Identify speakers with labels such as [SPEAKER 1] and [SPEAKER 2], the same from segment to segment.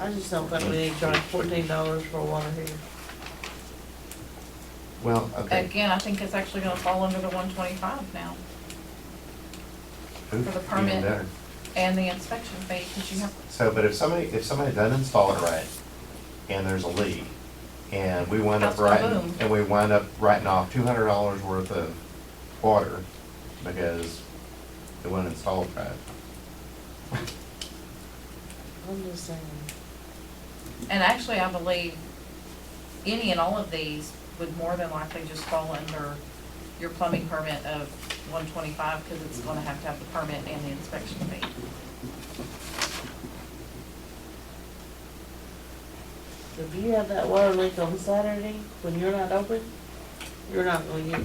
[SPEAKER 1] I just don't think we need to charge fourteen dollars for water heater.
[SPEAKER 2] Well, I think,
[SPEAKER 3] Again, I think it's actually gonna fall under the one twenty-five now,
[SPEAKER 2] ooh,
[SPEAKER 3] for the
[SPEAKER 2] even
[SPEAKER 3] permit.
[SPEAKER 2] better.
[SPEAKER 3] and the inspection fee, because you have,
[SPEAKER 2] So, but if somebody, if somebody doesn't install it right, and there's a leak, and we wind up
[SPEAKER 3] That's
[SPEAKER 2] writing,
[SPEAKER 3] kaboom.
[SPEAKER 2] and we wind up writing off two hundred dollars worth of water because it wasn't installed right.
[SPEAKER 1] I'm just saying.
[SPEAKER 3] and actually, I believe any and all of these would more than likely just fall under your plumbing permit of one twenty-five, because it's gonna have to have the permit and the inspection fee.
[SPEAKER 1] If you have that water leak on Saturday, when you're not open, you're not gonna get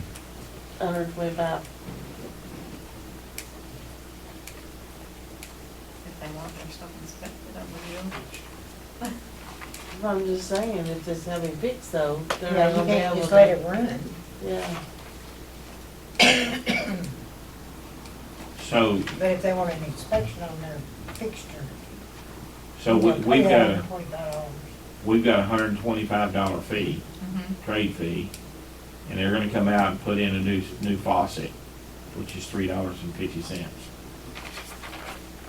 [SPEAKER 1] hundred and twenty-five.
[SPEAKER 3] If they want their stuff inspected, I believe.
[SPEAKER 1] I'm just saying, if it's having fixed though, they're
[SPEAKER 4] Yeah,
[SPEAKER 1] not
[SPEAKER 4] you
[SPEAKER 1] gonna be
[SPEAKER 4] can't
[SPEAKER 1] able
[SPEAKER 4] just let
[SPEAKER 1] to.
[SPEAKER 4] it run.
[SPEAKER 1] Yeah,
[SPEAKER 5] So,
[SPEAKER 4] But if they want an inspection on their fixture.
[SPEAKER 5] so we- we've got, a-
[SPEAKER 4] $125.
[SPEAKER 5] we've got a hundred and twenty-five dollar fee,
[SPEAKER 3] Mhm.
[SPEAKER 5] trade fee, and they're gonna come out and put in a new, new faucet, which is three dollars and fifty cents.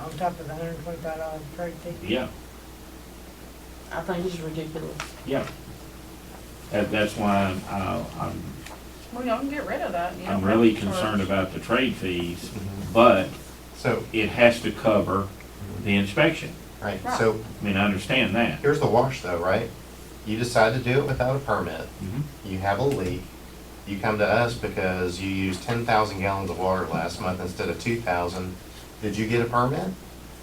[SPEAKER 4] on top of the hundred and twenty-five dollar trade fee.
[SPEAKER 5] Yeah,
[SPEAKER 1] I think it's ridiculous.
[SPEAKER 5] yeah. That, that's why I'm, uh, I'm,
[SPEAKER 3] Well, y'all can get rid of that, you don't
[SPEAKER 5] I'm
[SPEAKER 3] have
[SPEAKER 5] really
[SPEAKER 3] to charge.
[SPEAKER 5] concerned about the trade fees, but
[SPEAKER 2] So,
[SPEAKER 5] it has to cover the inspection.
[SPEAKER 2] right, so
[SPEAKER 5] I mean, I understand that.
[SPEAKER 2] here's the wash though, right? You decide to do it without a permit,
[SPEAKER 5] Mhm.
[SPEAKER 2] you have a leak, you come to us because you used ten thousand gallons of water last month instead of two thousand, did you get a permit?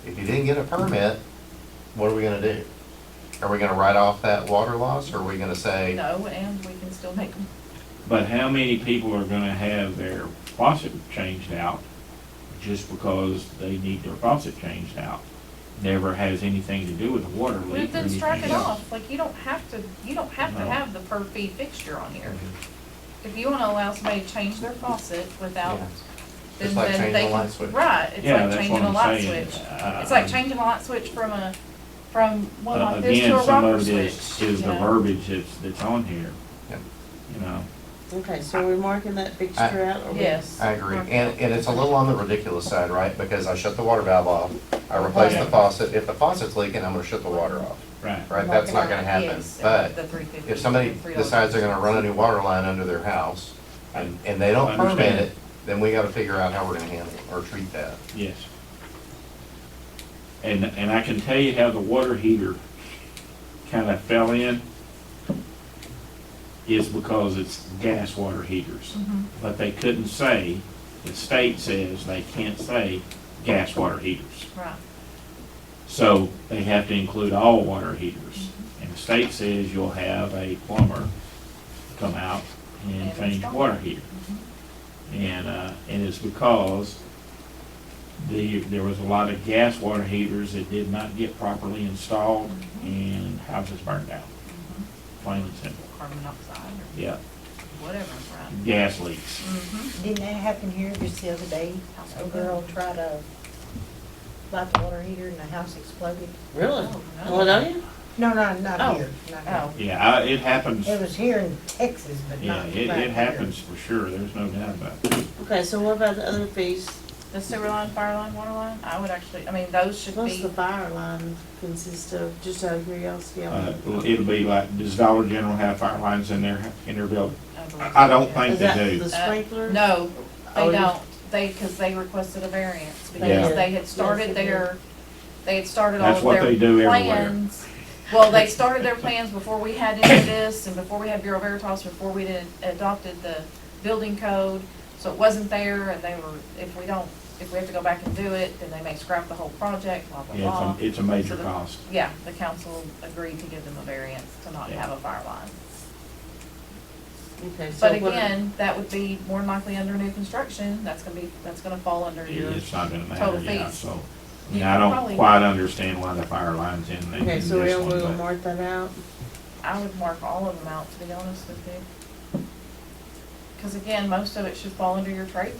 [SPEAKER 2] If you didn't get a permit, what are we gonna do? Are we gonna write off that water loss, or are we gonna say,
[SPEAKER 3] No, and we can still make them,
[SPEAKER 5] But how many people are gonna have their faucet changed out just because they need their faucet changed out? Never has anything to do with the water leak.
[SPEAKER 3] but
[SPEAKER 5] or
[SPEAKER 3] then
[SPEAKER 5] anything
[SPEAKER 3] strike it
[SPEAKER 5] else.
[SPEAKER 3] off, like, you don't have to, you don't have to
[SPEAKER 5] No.
[SPEAKER 3] have the per fee fixture on here. If you wanna allow somebody to change their faucet without,
[SPEAKER 2] Yeah.
[SPEAKER 3] then
[SPEAKER 2] It's like
[SPEAKER 3] then
[SPEAKER 2] changing
[SPEAKER 3] they
[SPEAKER 2] a light
[SPEAKER 3] can-
[SPEAKER 2] switch.
[SPEAKER 3] right, it's
[SPEAKER 5] Yeah,
[SPEAKER 3] like
[SPEAKER 5] that's what
[SPEAKER 3] changing a
[SPEAKER 5] I'm
[SPEAKER 3] light
[SPEAKER 5] saying.
[SPEAKER 3] switch.
[SPEAKER 5] Uh,
[SPEAKER 3] It's like changing a light switch from a, from one
[SPEAKER 5] uh,
[SPEAKER 3] like this to
[SPEAKER 5] Again,
[SPEAKER 3] a
[SPEAKER 5] some
[SPEAKER 3] rocker
[SPEAKER 5] of it
[SPEAKER 3] switch.
[SPEAKER 5] is, is
[SPEAKER 3] you
[SPEAKER 5] the
[SPEAKER 3] know?
[SPEAKER 5] verbiage that's, that's on here.
[SPEAKER 2] Yep.
[SPEAKER 5] You know,
[SPEAKER 1] Okay, so we're marking that fixture out? or we-
[SPEAKER 3] Yes.
[SPEAKER 2] I agree, and, and it's a little on the ridiculous side, right, because I shut the water valve off, I replace the
[SPEAKER 5] Yeah.
[SPEAKER 2] faucet, if the faucet's leaking, I'm gonna shut the water off,
[SPEAKER 5] right.
[SPEAKER 2] right, that's not gonna happen,
[SPEAKER 3] Yes,
[SPEAKER 2] but
[SPEAKER 3] the 350,
[SPEAKER 2] if somebody
[SPEAKER 3] the $3
[SPEAKER 2] decides they're gonna run a new water line under their house, and, and they don't
[SPEAKER 5] I
[SPEAKER 2] permit
[SPEAKER 5] understand.
[SPEAKER 2] it, then we gotta figure out how we're gonna handle it or treat that.
[SPEAKER 5] Yes. And, and I can tell you how the water heater kind of fell in is because it's gas water heaters.
[SPEAKER 3] Mhm.
[SPEAKER 5] But they couldn't say, the state says they can't say gas water heaters.
[SPEAKER 3] Right,
[SPEAKER 5] So they have to include all water heaters. And the state says you'll have a plumber come out and
[SPEAKER 3] And
[SPEAKER 5] change
[SPEAKER 3] install.
[SPEAKER 5] water heater.
[SPEAKER 4] Mm-hmm.
[SPEAKER 5] And, uh, and it's because the, there was a lot of gas water heaters that did not get properly installed
[SPEAKER 4] Mm-hmm.
[SPEAKER 5] and houses burned down. Plain and simple.
[SPEAKER 3] carbon monoxide or
[SPEAKER 5] Yeah,
[SPEAKER 3] whatever, right?
[SPEAKER 5] gas leaks.
[SPEAKER 3] Mhm.
[SPEAKER 4] Didn't that happen here just the other day? A girl tried to light the water heater and the house exploded.
[SPEAKER 1] Really?
[SPEAKER 3] Oh, no.
[SPEAKER 1] Well, don't you?
[SPEAKER 4] No, no, not
[SPEAKER 3] Oh.
[SPEAKER 4] here, not
[SPEAKER 3] Oh,
[SPEAKER 5] Yeah, I, it happens,
[SPEAKER 4] here. It was here in Texas, but
[SPEAKER 5] yeah,
[SPEAKER 4] not.
[SPEAKER 5] it,
[SPEAKER 4] right
[SPEAKER 5] it
[SPEAKER 4] here.
[SPEAKER 5] happens for sure, there's no doubt about it.
[SPEAKER 1] Okay, so what about the other fees?
[SPEAKER 3] the sewer line, fire line, water line, I would actually, I mean, those should
[SPEAKER 1] What's the
[SPEAKER 3] be,
[SPEAKER 1] fire line consist of, just out of curiosity? I
[SPEAKER 5] Uh,
[SPEAKER 1] mean,
[SPEAKER 5] It'll be like, does Dollar General have fire lines in their, in their building?
[SPEAKER 3] I believe.
[SPEAKER 5] I I don't
[SPEAKER 3] yeah.
[SPEAKER 5] think
[SPEAKER 1] Is
[SPEAKER 5] they
[SPEAKER 1] that
[SPEAKER 5] do.
[SPEAKER 1] the
[SPEAKER 3] Uh,
[SPEAKER 1] sprinkler?
[SPEAKER 3] No,
[SPEAKER 1] Oh,
[SPEAKER 3] they
[SPEAKER 1] you-
[SPEAKER 3] don't, they, because they requested a variance,
[SPEAKER 1] Yeah.
[SPEAKER 3] because they had started
[SPEAKER 1] Yes, they did.
[SPEAKER 3] their, they had started all
[SPEAKER 5] That's
[SPEAKER 3] of
[SPEAKER 5] what
[SPEAKER 3] their
[SPEAKER 5] they do everywhere.
[SPEAKER 3] plans. Well, they started their plans before we had any of this, and before we had Bureau Veritas, before we did, adopted the building code, so it wasn't there, and they were, if we don't, if we have to go back and do it, then they may scrap the whole project, blah, blah,
[SPEAKER 5] Yeah,
[SPEAKER 3] blah.
[SPEAKER 5] it's a, it's a
[SPEAKER 3] So
[SPEAKER 5] major
[SPEAKER 3] the-
[SPEAKER 5] cost.
[SPEAKER 3] Yeah, the council agreed to give them a variance to not
[SPEAKER 5] Yeah.
[SPEAKER 3] have a fire line.
[SPEAKER 1] Okay, so
[SPEAKER 3] But
[SPEAKER 1] what-
[SPEAKER 3] again, that would be more than likely under new construction, that's gonna be, that's gonna fall under your
[SPEAKER 5] It's not gonna matter,
[SPEAKER 3] Total
[SPEAKER 5] yeah,
[SPEAKER 3] fees.
[SPEAKER 5] so.
[SPEAKER 3] You
[SPEAKER 5] Yeah, I
[SPEAKER 3] probably-
[SPEAKER 5] don't quite understand why the fire line's in, the- in
[SPEAKER 1] Okay,
[SPEAKER 5] this
[SPEAKER 1] so we'll, we'll
[SPEAKER 5] one, but
[SPEAKER 1] mark that out.
[SPEAKER 3] I would mark all of them out, to be honest with you. Because again, most of it should fall under your trade